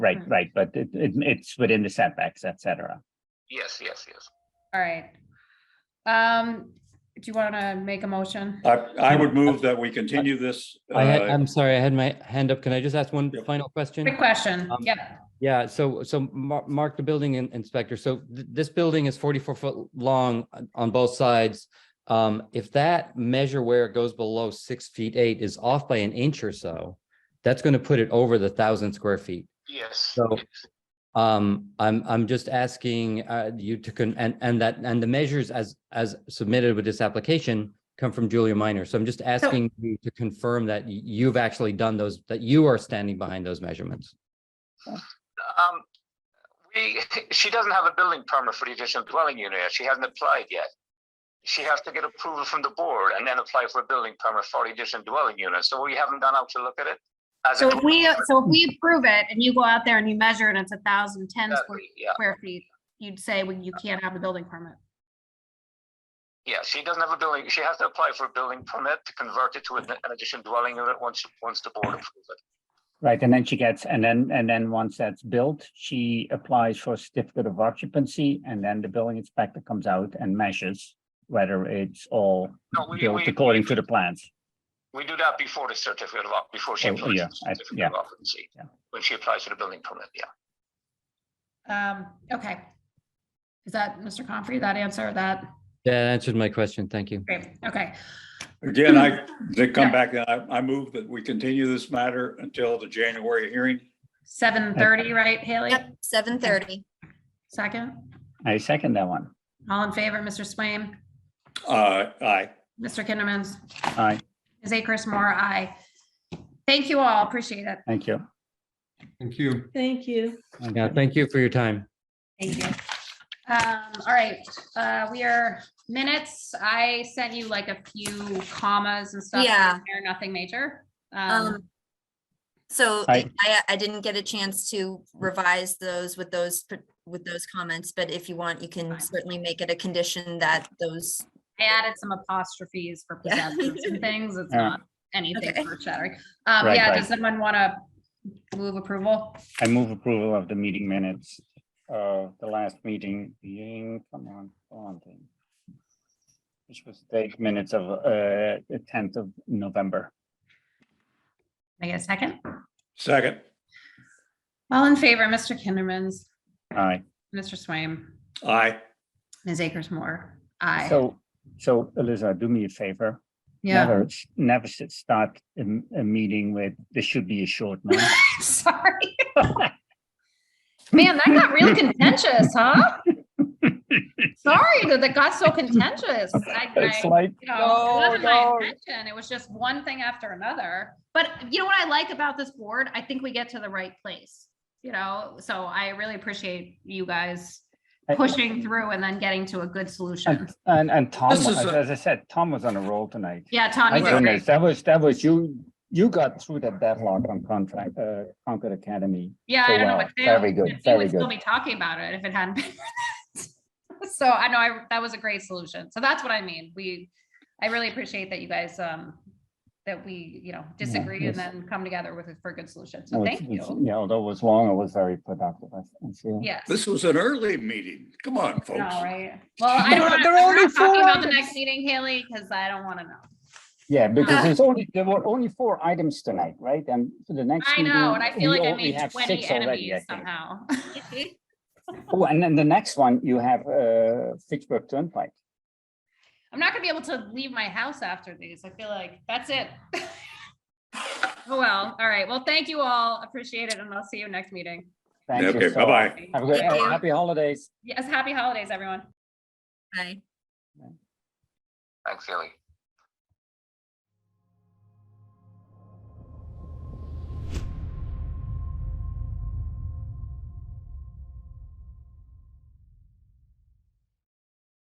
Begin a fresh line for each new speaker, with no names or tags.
Right,
Mhm.
right, but it, it, it's within the setbacks, et cetera.
Yes, yes, yes.
All right. Um, do you want to make a
Uh,
motion?
I, I would move that we continue this.
I had,
uh,
I'm sorry, I had my hand up. Can I just ask one
Yep.
final question?
Quick question.
Um,
Yeah,
Yeah, so, so Mar- Mark, the building in- inspector, so th- this building is forty-four foot long on- on both sides. Um, if that measure where it goes below six feet eight is off by an inch or so, that's gonna put it over the thousand square feet.
Yes.
So-
yes.
Um, I'm, I'm just asking, uh, you to, con- and, and that, and the measures as, as submitted with this application come from Julia Minor. So I'm just asking you to confirm that y- you've actually done those, that you are standing behind those measurements.
Um, we, she doesn't have a building permit for the additional dwelling unit. yet. She hasn't applied yet. She has to get approval from the board and then apply for a building permit for the additional dwelling unit. So we haven't gone out to look at it. as a
So if we, uh,
dwelling
so if we approve it and you go out there and you measure it, it's a thousand ten
unit.
square,
Yeah,
square feet, you'd say, well, you can't have a building permit.
yeah, she doesn't have a building, she has to apply for a building permit to convert it to an an additional dwelling unit once, once the board approves it.
Right, and then she gets, and then, and then once that's built, she applies for a certificate of occupancy, and then the building inspector comes out and measures whether it's all
No, we-
built
we-
according to the plans.
We do that before the certificate of, oc- before she
Oh,
applies
yeah,
for
I- yeah.
the certificate of occupancy,
Yeah.
when she applies for the building permit, yeah.
um, okay. Is that, Mr. Comfrey, that answer that?
That answered my question. Thank you.
Great, okay.
Again, I, they come back, I, I move that we continue this matter until the January hearing.
Seven thirty, right, Haley?
Yep, seven thirty.
Second,
I second that one.
all in favor, Mr. Swaim,
Uh, aye.
Mr. Kindermans,
Aye,
Ms. Akers Moore, aye. Thank you all, appreciate it.
thank you.
Thank you.
Thank you.
Thank
Yeah,
you.
thank you for your time.
Thank you. Um, all right, uh, we are minutes. I sent you like a few commas and stuff.
Yeah.
They're Nothing major. Um,
Um, so I,
Hi.
I didn't get a chance to revise those with those, pr- with those comments, but if you want, you can
Fine.
certainly make it a condition that those,
I added some apostrophes for
Yeah.
possessions and things. It's
Yeah.
not anything
Okay.
earth shattering. Um,
Right,
yeah,
right.
does someone want to move approval?
I move approval of the meeting minutes, uh, the last meeting, being, come on, come on thing. Which was the eight minutes of, uh, the tenth of November.
Can I get a second?
Second,
All in favor, Mr. Kindermans,
Aye.
Mr. Swaim,
aye.
Ms. Akers Moore. Aye.
So, so Eliza, do me a favor.
Yeah,
Never, s- never s- start a, m- a meeting with, this should be a short one.
sorry. Man, that got real contentious, huh? Sorry that that got so contentious. I- I-
It's like,
you know, it
No,
wasn't my
no.
intention. It was just one thing after another. But you know what I like about this board? I think we get to the right place, you know? So I really appreciate you guys
I-
pushing through and then getting to a good solution.
and, and, and Tom,
This
was-
is a-
as I said, Tom was on a roll tonight.
Yeah, Tom,
My
you did
goodness,
great.
that was, that was, you, you got through that deadlock on contract, uh, Concord Academy.
Yeah,
so
I don't
well.
know what to do.
Very good,
We would
very
Still
good.
be talking about it if it hadn't been. for that. So I know I, that was a great solution. So that's what I mean. We, I really appreciate that you guys, um, that we, you know, disagree
yes.
and then come together with, a- for a good solution.
No,
So
it's-
thank
it's-
you.
Yeah, although it was long, it was very productive, I I feel.
Yes.
This was an early meeting. Come on,
No,
folks.
right? Well, I
There-
don't want,
there are
we're
only
not talking
four
about the
items.
next meeting, Haley, because I don't want to know.
Yeah, because
Uh,
there's only, there were only four items tonight, right? And for the next.
I know, and I
meeting,
feel
we
like I
already
made
have
twenty
six already, I
enemies
think.
somehow.
Oh, and then the next one, you have uh Fitchburg Turnpike.
I'm not gonna be able to leave my house after these. I feel like that's it. Oh, well, all right. Well, thank you all. Appreciate it, and I'll see you next meeting.
Thank you
Okay,
so much.
bye-bye.
Have a good,
Thank you.
happy holidays.
Yes, happy holidays, everyone.
I.
Thanks, Haley.